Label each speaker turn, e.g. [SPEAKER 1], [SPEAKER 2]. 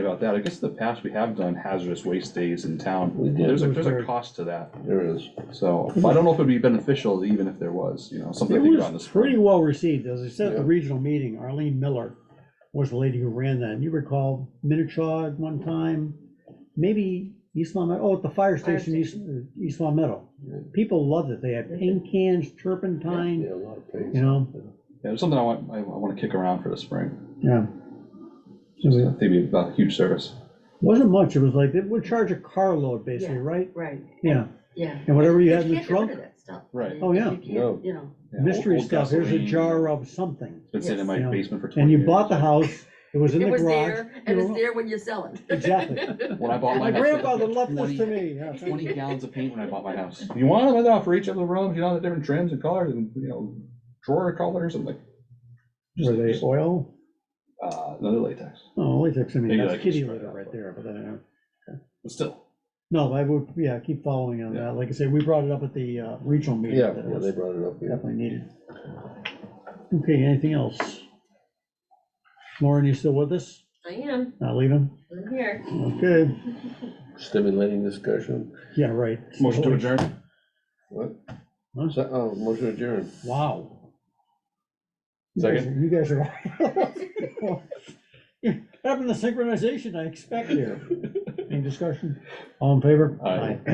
[SPEAKER 1] about that. I guess in the past, we have done hazardous waste days in town.
[SPEAKER 2] We did.
[SPEAKER 1] There's a,
[SPEAKER 3] It was
[SPEAKER 1] there's a
[SPEAKER 3] very-
[SPEAKER 1] cost to that,
[SPEAKER 2] There is,
[SPEAKER 1] so but I don't know if it'd be beneficial even if there was, you know, something
[SPEAKER 3] It
[SPEAKER 1] to think about in the
[SPEAKER 3] was pretty
[SPEAKER 1] spring.
[SPEAKER 3] well received, as I said at the
[SPEAKER 2] Yeah.
[SPEAKER 3] regional meeting, Arlene Miller was the lady who ran that, and you recall Minichaw at one time, maybe East Long, Meadow- oh, at the fire
[SPEAKER 4] Fire
[SPEAKER 3] station, East, uh, East Long Meadow. People loved it, they had paint cans, turpentine,
[SPEAKER 2] yeah, a lot of pain.
[SPEAKER 3] you know,
[SPEAKER 1] Yeah, it's something I want, I I wanna kick around for the spring.
[SPEAKER 3] yeah. So
[SPEAKER 1] Just, I
[SPEAKER 3] it
[SPEAKER 1] think it'd be about a huge service.
[SPEAKER 3] Wasn't much, it was like, they would charge a carload basically,
[SPEAKER 4] Yeah.
[SPEAKER 3] right?
[SPEAKER 4] Right,
[SPEAKER 3] Yeah,
[SPEAKER 4] yeah.
[SPEAKER 3] and whatever you had
[SPEAKER 4] But
[SPEAKER 3] in the
[SPEAKER 4] you can't get rid
[SPEAKER 3] trunk,
[SPEAKER 4] of that stuff.
[SPEAKER 1] Right.
[SPEAKER 4] You-
[SPEAKER 3] Oh, yeah.
[SPEAKER 4] You
[SPEAKER 2] No.
[SPEAKER 4] can't, you know,
[SPEAKER 1] Yeah, old-
[SPEAKER 3] mystery
[SPEAKER 1] old
[SPEAKER 3] stuff, here's a
[SPEAKER 1] gasoline.
[SPEAKER 3] jar of something,
[SPEAKER 1] It's been sitting in my
[SPEAKER 3] Yes.
[SPEAKER 1] basement for twenty
[SPEAKER 3] and
[SPEAKER 1] years.
[SPEAKER 3] you bought the house, it was in
[SPEAKER 4] it
[SPEAKER 3] the
[SPEAKER 4] was
[SPEAKER 3] garage.
[SPEAKER 4] there, and
[SPEAKER 3] you
[SPEAKER 4] it's
[SPEAKER 3] know,
[SPEAKER 4] there when you sell it.
[SPEAKER 3] Exactly.
[SPEAKER 1] When I bought
[SPEAKER 3] My
[SPEAKER 1] mine, I said,
[SPEAKER 3] grandfather loved this to
[SPEAKER 1] 20
[SPEAKER 3] me, yeah.
[SPEAKER 1] Twenty gallons of paint when I bought my house. You want them enough for each of the rooms, you know, the different trims and colors and, you know, drawer colors and like,
[SPEAKER 3] Were they oil?
[SPEAKER 1] uh, another latex.
[SPEAKER 3] Oh, latex, I mean,
[SPEAKER 1] Maybe
[SPEAKER 3] that's
[SPEAKER 1] like
[SPEAKER 3] kitty
[SPEAKER 1] straight
[SPEAKER 3] litter
[SPEAKER 1] up.
[SPEAKER 3] right there, but then, uh,
[SPEAKER 1] But still,
[SPEAKER 3] no, I would, yeah, keep following on that, like I said, we brought it up at the uh, regional meeting.
[SPEAKER 2] Yeah,
[SPEAKER 3] that it
[SPEAKER 2] yeah,
[SPEAKER 3] was
[SPEAKER 2] they brought it up, yeah.
[SPEAKER 3] Definitely needed. Okay, anything else? Lauren, you still with us?
[SPEAKER 4] I am,
[SPEAKER 3] Not leaving?
[SPEAKER 4] I'm here.
[SPEAKER 3] Okay,
[SPEAKER 2] Stimulating discussion,
[SPEAKER 3] yeah, right.
[SPEAKER 1] motion to adjourn.
[SPEAKER 2] what?
[SPEAKER 3] Huh?
[SPEAKER 2] So, oh, motion adjourned.
[SPEAKER 3] Wow. You guys- You guys are. Having the synchronization I expect here. Any discussion? All in favor?
[SPEAKER 1] Aye.